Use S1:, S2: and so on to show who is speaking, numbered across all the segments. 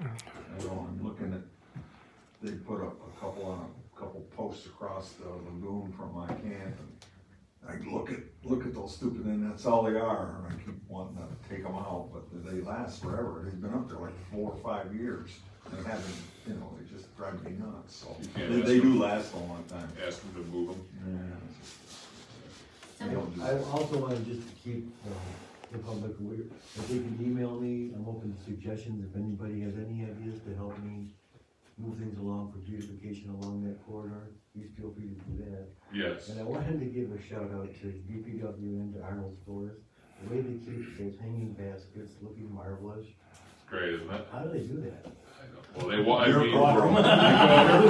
S1: I know, I'm looking at, they put up a couple on, a couple posts across the lagoon from my camp. and I look at, look at those stupid, and that's all they are, and I keep wanting to take them out, but they last forever. They've been up there like four or five years. They haven't, you know, they just drive me nuts, so.
S2: You can't
S1: They,
S2: ask
S1: they
S2: them.
S1: do last a long time.
S2: ask them to move them.
S1: Yeah. They
S3: So,
S1: don't do
S4: I also wanted just to keep um, the, the public aware, if they can email me, I'm open to suggestions, if anybody has any ideas to help me move things along for beautification along that corridor, please feel free to do that.
S2: Yes,
S4: And I wanted to give a shout out to DPW and to Arnold Stores, the way they keep those hanging baskets looking marvelous,
S2: great, isn't it?
S4: how do they do that?
S2: Well, they, wa- I mean.
S1: Miracle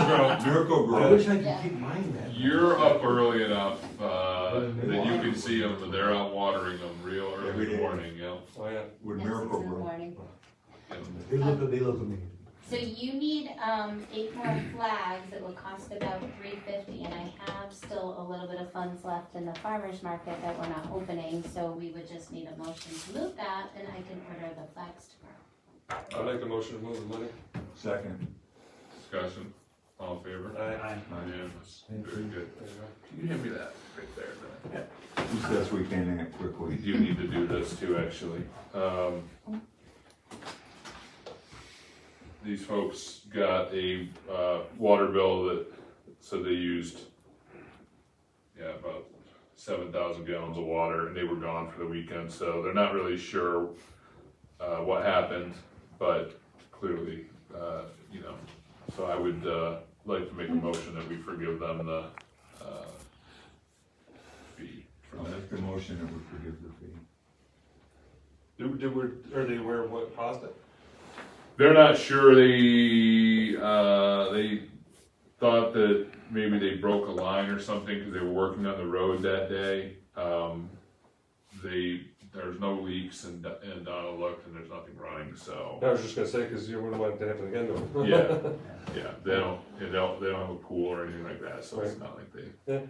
S1: Grow. Miracle
S4: I
S1: Grow.
S4: wish I could keep mine that.
S2: You're up early enough, uh, that you can see them, but they're out watering them real early in the morning, yeah.
S5: Oh, yeah.
S1: With
S3: Yes, it's
S1: Miracle
S3: in the
S1: Grow.
S3: morning.
S4: They look, they look amazing.
S3: So you need, um, eight more flags, it will cost about three fifty, and I have still a little bit of funds left in the farmer's market that we're not opening, so we would just need a motion to move that, and I can order the flags tomorrow.
S5: I make a motion to move the money.
S1: Second.
S2: Discussion, all in favor?
S5: Aye.
S2: Unanimous,
S4: Thank
S2: very
S4: you.
S2: good.
S5: There you go.
S2: Can you hand me that right there, Matt?
S1: Who says we can't act
S2: We
S1: quickly?
S2: do need to do this too, actually. Um, these folks got a, uh, water bill that, so they used, yeah, about seven thousand gallons of water, and they were gone for the weekend, so they're not really sure, uh, what happened, but clearly, uh, you know, so I would, uh, like to make a motion that we forgive them the, uh, fee for
S1: I'll
S2: that.
S1: make the motion that we forgive the fee.
S5: Did, did, were, are they aware of what caused it?
S2: They're not sure. They uh, they thought that maybe they broke a line or something because they were working on the road that day. Um, they there's no leaks and and Donna looked and there's nothing running. So
S5: I was just gonna say, cause you wouldn't want it to happen again though.
S2: yeah, yeah. They don't they don't they don't have a pool or anything like that. So it's
S5: Right.
S2: not like they.
S5: Yeah.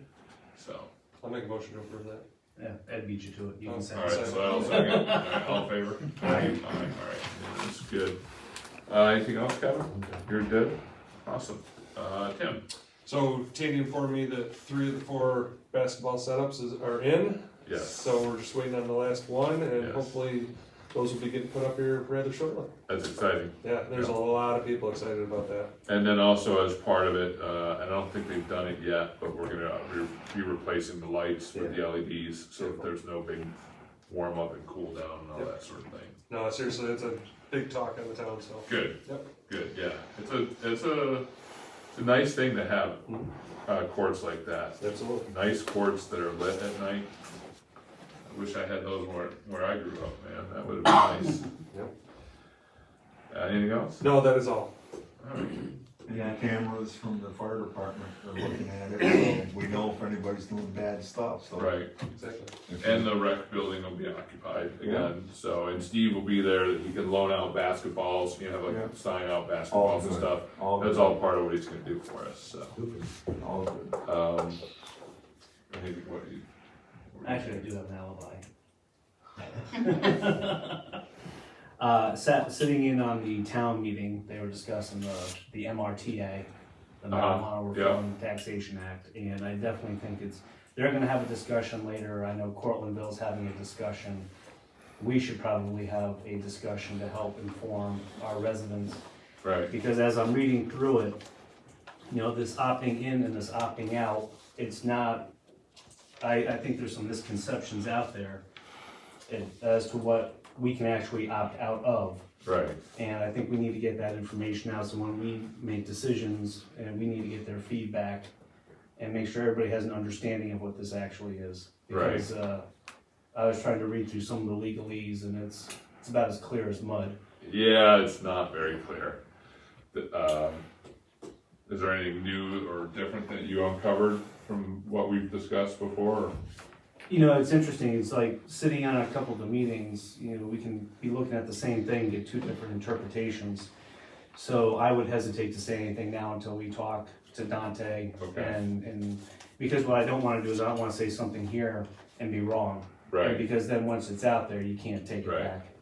S2: So
S5: I'll make a motion to approve that.
S6: Yeah, Ed beat you to it, you
S5: Oh,
S6: can say.
S2: all right. So I'll second. All, right, all in favor? Aye. All right. All right. That's good. Uh, anything else, Kevin? You're good. Awesome. Uh, Tim.
S5: So Tandy informed me that three of the four basketball setups is, are in.
S2: Yes,
S5: So we're just waiting on the last one and
S2: Yes.
S5: hopefully those will be getting put up here rather shortly.
S2: that's exciting.
S5: Yeah, there's a lot of people excited about that.
S2: And then also as part of it, uh, and I don't think they've done it yet, but we're gonna re- be replacing the lights with the LEDs, so if there's no big warm up and cool down and all
S5: Yeah.
S2: that sort of thing.
S5: No, seriously, it's a big talk in the town, so.
S2: Good,
S5: Yep.
S2: good, yeah. It's a, it's a, it's a nice thing to have,
S5: Mhm.
S2: uh, courts like that.
S5: Absolutely.
S2: Nice courts that are lit at night. I wish I had those where, where I grew up, man. That would've been nice.
S5: Yep.
S2: Uh, anything else?
S5: No, that is all.
S2: All right.
S1: Yeah, cameras from the fire department are looking at it, so we know if anybody's doing bad stuff, so.
S2: Right.
S5: Exactly.
S1: If-
S2: And the rec building will be occupied again, so, and Steve will be there, that he can loan out basketballs, you know,
S1: Yeah.
S2: like sign out
S1: All
S2: basketballs and
S1: good.
S2: stuff.
S1: All
S2: That's
S1: good.
S2: all part of what he's gonna do for us, so,
S4: Super.
S1: All good.
S2: um, I think what you. what you-
S6: Actually, I do have an alibi. Uh, sat, sitting in on the town meeting, they were discussing the, the MRTA, the
S2: Uh-huh,
S6: Marijuana
S2: yeah.
S6: Reform Taxation Act, and I definitely think it's, they're gonna have a discussion later, I know Cortland Bill's having a discussion. We should probably have a discussion to help inform our residents
S2: Right,
S6: because as I'm reading through it, you know, this opting in and this opting out, it's not, I, I think there's some misconceptions out there in- as to what we can actually opt out of.
S2: right,
S6: And I think we need to get that information out, so when we make decisions, and we need to get their feedback and make sure everybody has an understanding of what this actually is.
S2: Right.
S6: Because, uh, I was trying to read through some of the legalese and it's, it's about as clear as mud.
S2: yeah, it's not very clear. The- Um, is there anything new or different that you uncovered from what we've discussed before?
S6: You know, it's interesting, it's like sitting on a couple of the meetings, you know, we can be looking at the same thing, get two different interpretations. So I would hesitate to say anything now until we talk to Dante
S2: Okay.
S6: and, and, because what I don't wanna do is I don't wanna say something here and be wrong.
S2: Right,
S6: Because then once it's out there, you can't take it
S2: Right.
S6: back.